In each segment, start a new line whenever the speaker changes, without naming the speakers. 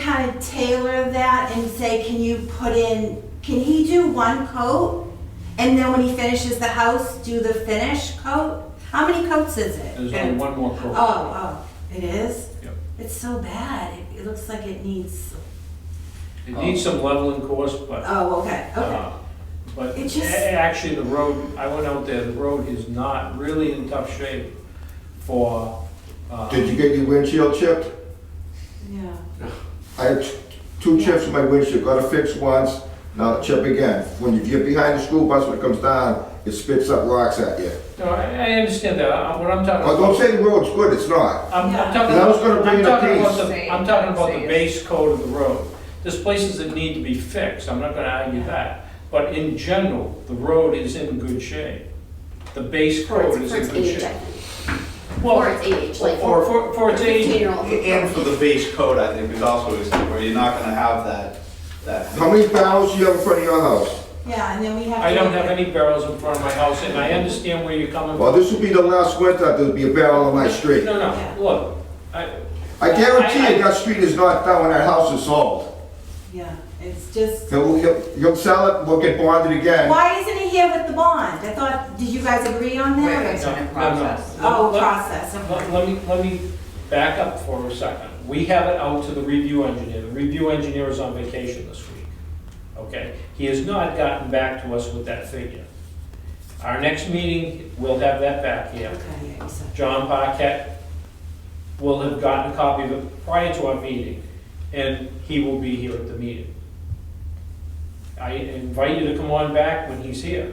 kind of tailor that and say, can you put in, can he do one coat? And then when he finishes the house, do the finish coat? How many coats is it?
There's only one more coat.
Oh, oh, it is?
Yep.
It's so bad. It, it looks like it needs,
It needs some leveling course, but,
oh, okay, okay.
uh, but
It just-
a- actually, the road, I went out there, the road is not really in tough shape for, uh,
Did you get your windshield chipped?
Yeah.
I had t- two chips in my windshield, got it fixed once, now chip again. When you get behind the school bus, when it comes down, it spits up rocks at you.
no, I, I understand that, I- what I'm talking
Oh,
about.
don't say the road's good, it's not.
I'm, I'm talking
Yeah. I
about,
was gonna bring
I'm
it up
talking about
these.
the, I'm talking about the base code of the road. There's places that need to be fixed, I'm not gonna argue that, but in general, the road is in good shape. The base
For
code
its,
is
for its
in good
age,
shape.
I think.
Well,
For its age, like.
For, for, for its age,
Fifteen-year-old.
And for the base code, I think, is also, a step where you're not gonna have that, that.
How many barrels you have in front of your house?
Yeah, and then we have.
I
to
don't
look
have
at-
any barrels in front of my house, and I understand where you're coming
Well,
from.
this will be the last winter there'll be a barrel on my street.
No,
Yeah.
no, look, I,
I guarantee you, that street is not down when that house is sold.
Yeah, it's just,
He'll, he'll, he'll sell it, we'll get bonded again.
why isn't he here with the bond? I thought, did you guys agree on
Wait,
that?
wait,
no,
in
no, no.
process.
Oh,
Let-
process, okay.
Let, let me, let me back up for a second. We have it out to the review engineer. The review engineer is on vacation this week, okay? He has not gotten back to us with that figure. Our next meeting, we'll have that back here.
Okay, yeah, you said.
John Paquette will have gotten a copy of it prior to our meeting, and he will be here at the meeting. I invite you to come on back when he's here,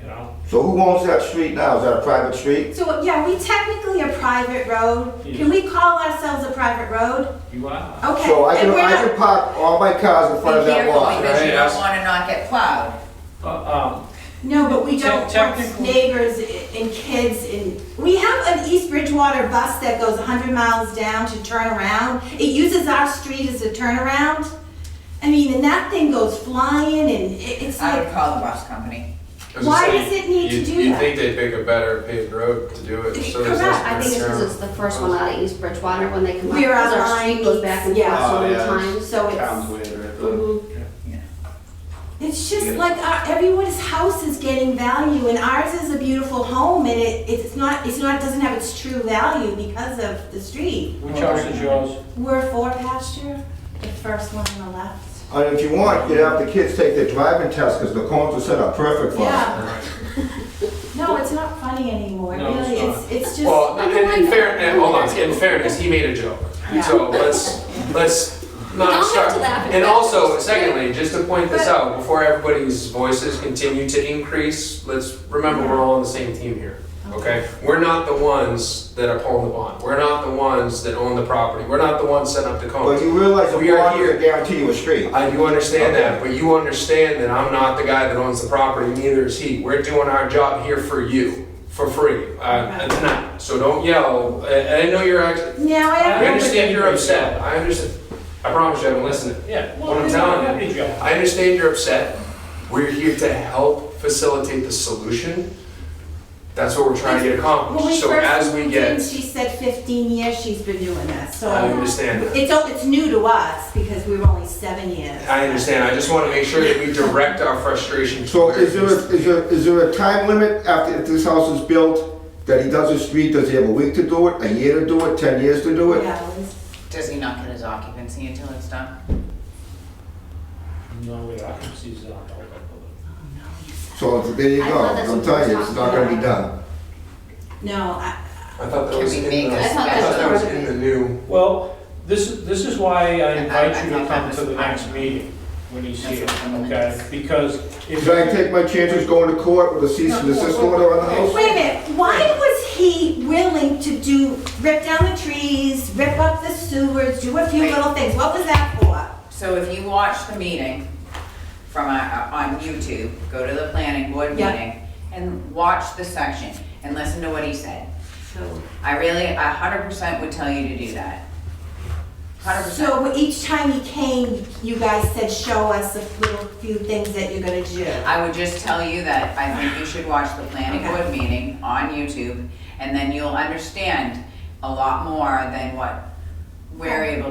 you know?
So who owns that street now? Is that a private street?
So, yeah, we technically a private road.
Yes.
Can we call ourselves a private road?
You are.
Okay.
So I can,
and we're
I
not-
can park all my cars in front of
We hear
that lot,
from you because you
right?
don't want to not get plowed.
Uh, um,
No, but we
Te-
don't want
technically-
neighbors i- and kids and, we have an East Bridgewater bus that goes hundred miles down to turn around. It uses our street as a turnaround. I mean, and that thing goes flying and it- it's
I would
like,
call the bus company.
I was
Why
gonna
does
say,
it need to
you'd-
do
You'd
that?
think they'd pick a better paved road to do it. so there's
Correct,
less
I think it's because it's
concern.
the first one out of East Bridgewater when they come up.
We were
because
on
our
line
street goes
meets,
back and
yeah.
forth so many
Oh, yeah.
times.
so
Town's
it's,
way right there.
Mhm.
Yeah.
it's just
Yeah.
like our, everyone's house is getting value and ours is a beautiful home and it, it's not, it's not, doesn't have its true value because of the street.
which house is yours?
We're for pasture, the first one on the left.
And if you want, you have the kids take their driving test, because the cones are set up perfect for them.
Yeah. No, it's not funny anymore,
No, it's
really, it's,
not.
it's
Well,
just,
I
in, in
like
fairness,
that.
hold on, in fairness, he made a joke.
Yeah.
So let's, let's
Don't
not
have
start.
to laugh at
And
that.
also, secondly, just to point this
But-
out, before everybody's voices continue to increase, let's remember we're all on the same team here. Okay? We're not the ones that are pulling the bond. We're not the ones that own the property. We're not the ones setting up the cones.
But you realize a
We are
bond
here.
doesn't guarantee you a street.
I do understand that,
Okay.
but you understand that I'm not the guy that owns the property, neither is he. We're doing our job here for you, for free, uh, tonight. So don't yell. I, I know you're actually,
now I
I
have,
understand you're upset. I understand. I promise you, I haven't listened.
Yeah.
What I'm telling you, I understand you're upset. We're here to help facilitate the solution. That's what we're trying to get
when we
accomplished. So as
first
we
moved in,
get,
she said fifteen years she's been doing this, so.
I understand that.
It's, all- it's new to us, because we were only seven years.
I understand. I just want to make sure that we direct our frustration.
So is there,
towards-
a- is there, is there a time limit after, if this house is built, that he does a street, does he have a week to do it, a year to do it, ten years to do it?
Yeah, it was-
Does he not get his occupancy until it's done?
No, we occupancy is not. held, I
So there you
I
go,
thought that's
I'm
what
telling
we
you,
were
it's not gonna be
talking
done.
No, I,
I thought that
Can
was
we
in
make
the,
a
I thought that
special
was
part of
in the new.
believe. Well, this, is- this is why I invite
I-
you
I
to come
thought that
to
was
the
fine.
next meeting when he's
That's
here,
what I'm gonna
okay?
do.
Because if.
Should I take my chances going to court with a cease and desist order on the house?
wait a minute, why was he willing to do, rip down the trees, rip up the sewers, do a few
Wait.
little things, what was that for?
So if you watch the meeting from, uh, on YouTube, go to the planning board
Yeah.
meeting and watch the section and listen to what he said.
So.
I really, a hundred percent would tell you to do that. Hundred percent.
So each time he came, you guys said, show us a little few things that you're gonna do.
I would just tell you that I think you should watch the planning board meeting on YouTube, and then you'll understand a lot more than what we're able to